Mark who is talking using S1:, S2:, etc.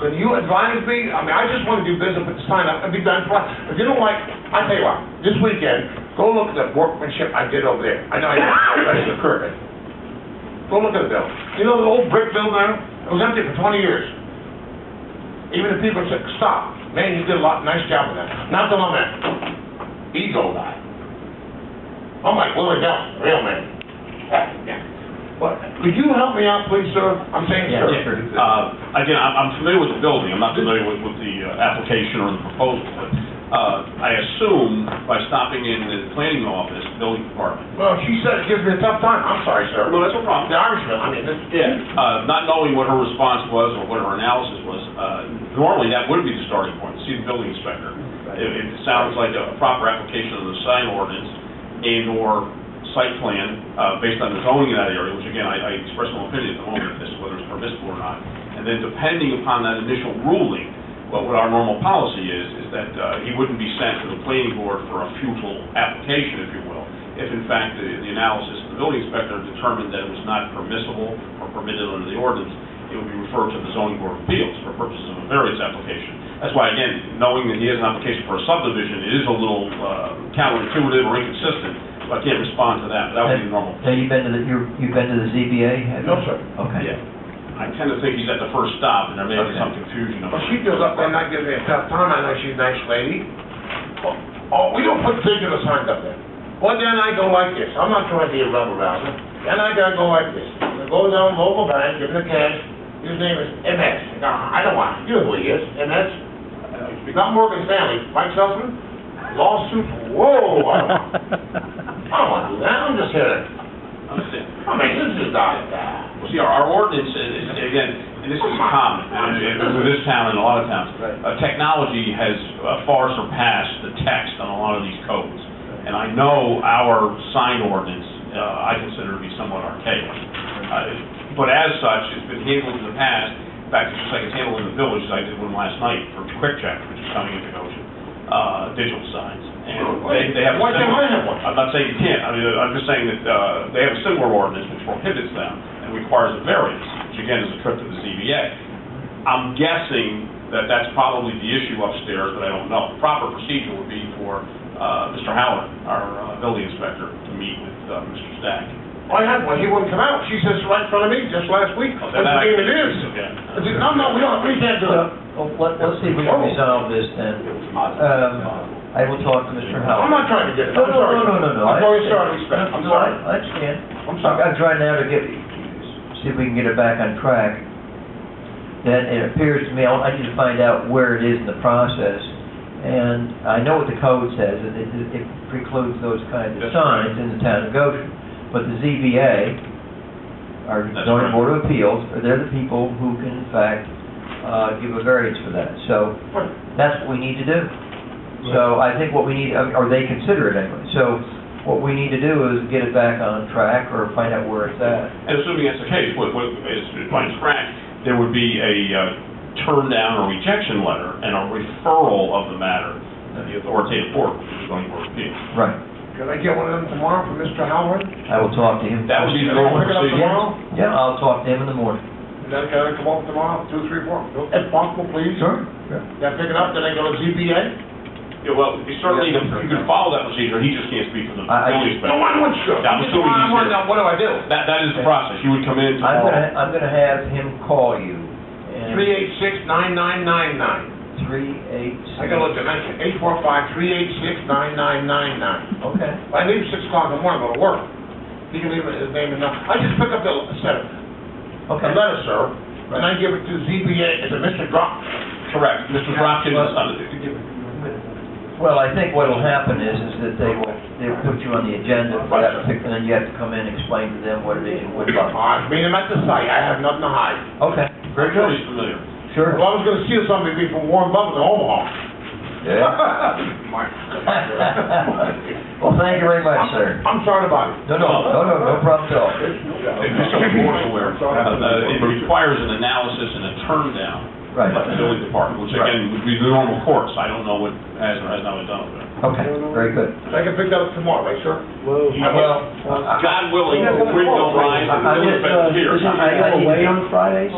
S1: Can you advise me? I mean, I just want to do business at this time, I'll be done, for- if you don't like, I tell you what, this weekend, go look at the workmanship I did over there. I know I did, that's the curve. Go look at the building. You know the old brick building there? It was empty for twenty years. Even the people said, stop, man, you did a lot, nice job with that. Not that I'm an ego guy. I'm like Willie Dell, real man. Yeah. But, could you help me out, please, sir? I'm saying,
S2: Yeah,
S1: sir.
S2: yeah.
S3: Uh, Again, I'm I'm familiar with the building, I'm not familiar with, with the uh, application or the proposal. Uh, I assume by stopping in the planning office, building department,
S1: Well, she said it gives me a tough time. I'm sorry, sir.
S3: No, that's no problem.
S1: The Irishman, I mean, this,
S3: Yeah, uh, not knowing what her response was or what her analysis was, uh, normally that would be the starting point, see the building inspector. If if it sounds like a proper application of the sign ordinance and/or site plan uh, based on the zoning in that area, which again, I I express no opinion at the moment of this, whether it's permissible or not. And then depending upon that initial ruling, what what our normal policy is, is that uh, he wouldn't be sent to the planning board for a futile application, if you will, if in fact the the analysis of the building inspector determined that it was not permissible or permitted under the ordinance, it would be referred to the zoning board of appeals for purposes of a variance application. That's why, again, knowing that he has an application for a subdivision, it is a little uh, counterintuitive or inconsistent, so I can't respond to that, but that would be normal.
S2: Have you been to the, you're- you've been to the ZBA? have you?
S1: No, sir.
S2: Okay.
S3: Yeah. I tend to think he's at the first stop, and there may be
S2: Okay.
S3: some confusion.
S1: well, she goes up there and not gives me a tough time. I know she's a nice lady. Oh, Oh, we don't put digital signs up there. Well, then I go like this. I'm not trying to be a rubber rouser. Then I gotta go like this. I go down local bank, give him the cash. His name is MS. No, I don't want, it. you know who he is, MS. Not Morgan Stanley, Mike Sussman. Lawsuit, whoa, I don't want, I don't want to do that. I'm just here. to-
S3: Understand.
S1: I mean, this is not, uh,
S3: Well, see, our, our ordinance is, is, again, and this is common, and it- in this town and a lot of towns. Uh, technology has uh, far surpassed the text on a lot of these codes. And I know our sign ordinance, uh, I consider to be somewhat archaic. Uh, But as such, it's been handled in the past, in fact, it's just like it's handled in the village, as I did one last night for Quick Check, which is coming into motion, uh, digital signs. And they, they have.
S1: Why can't I have one?
S3: I'm not saying you can't, I mean, I'm just saying that, uh, they have a similar ordinance which prohibits them and requires a variance, which again is a trip to the ZBA. I'm guessing that that's probably the issue upstairs, but I don't know. Proper procedure would be for, uh, Mr. Howard, our uh, building inspector, to meet with, uh, Mr. Stack.
S1: I had one, he wouldn't come out, she sits right in front of me just last week, that's the game it is. I said, no, no, we don't, we can't do it.
S2: Well, let- Let's see if we can resolve this then. Um, I will talk to Mr. Howard.
S1: I'm not trying to get it,
S2: No,
S1: I'm
S2: no,
S1: sorry.
S2: no, no, no, no.
S1: I'm very
S2: I-
S1: sorry, respect, I'm
S2: No,
S1: sorry,
S2: I I understand.
S1: I'm
S2: I'm
S1: sorry.
S2: I'm trying now to get, see if we can get it back on track. That it appears to me, I I need to find out where it is in the process. And I know what the code says, and it it precludes those kinds of
S3: That's
S2: signs in the town of Goshen. But the ZBA, our
S3: That's
S2: zoning
S3: correct.
S2: board of appeals, they're the people who can in fact uh, give a variance for that. So
S1: Right.
S2: that's what we need to do. So I think what we need, or they consider it anyway. So what we need to do is get it back on track or find out where it's at.
S3: And assuming that's the case, what, what is, if mine's correct, there would be a uh, turn down or rejection letter and a referral of the matter to the authoritative board, which is going to work appeal.
S2: Right.
S1: Can I get one of them tomorrow from Mr. Howard?
S2: I will talk to him.
S3: That would be the
S1: Can I
S3: normal
S1: pick it up
S3: procedure.
S1: tomorrow?
S2: Yeah, I'll talk to him in the morning.
S1: And then can I come up tomorrow, two, three, four, if possible, please? Then pick it up, then I go to ZBA?
S3: Yeah, well, you certainly, you can follow that procedure, he just can't speak for the
S2: I- I-
S3: building
S1: No, I
S3: inspector.
S1: want you.
S3: Yeah, I'm assuming
S1: I
S3: he's
S1: want
S3: here.
S1: to know, what do I do?
S3: That, that is the process, you would come in
S2: I'm gonna,
S3: tomorrow.
S2: I'm gonna have him call you. and-
S1: Three eight six nine nine nine nine.
S2: Three, eight,
S1: I
S2: six.
S1: got a little dimension, eight four five three eight six nine nine nine nine.
S2: Okay.
S1: If I leave six o'clock in the morning, go to work. He can leave his name and number. I just pick up the letter, the
S2: Okay.
S1: letter, sir, and I give it to ZBA, it's a Mr. Drop.
S3: Correct, Mr. Dropkin is,
S2: Well, I think what'll happen is, is that they will, they'll put you on the agenda for that, and then you have to come in and explain to them what it is and what about.
S1: I mean, I'm at the site, I have nothing to hide.
S2: Okay.
S3: very good, he's familiar.
S2: Sure.
S1: Well, I was gonna steal something from Warren Buffett in Omaha.
S2: Yeah. Well, thank you very much, sir.
S1: I'm sorry about it.
S2: No, no, no, no, no problem at all.
S3: And Mr. Moore's aware, uh, that it requires an analysis and a turn down by
S2: Right.
S3: the building department, which again, would be the normal course, I don't know what has or has not been done with it.
S2: Okay, very good.
S1: I can pick that up tomorrow, right, sir?
S2: Well, I-
S3: God willing,
S1: Yeah, but-
S3: we will rise and the
S2: I- I
S3: building
S2: just, uh,
S3: inspector here.
S2: I- I- I need to-
S4: Fridays?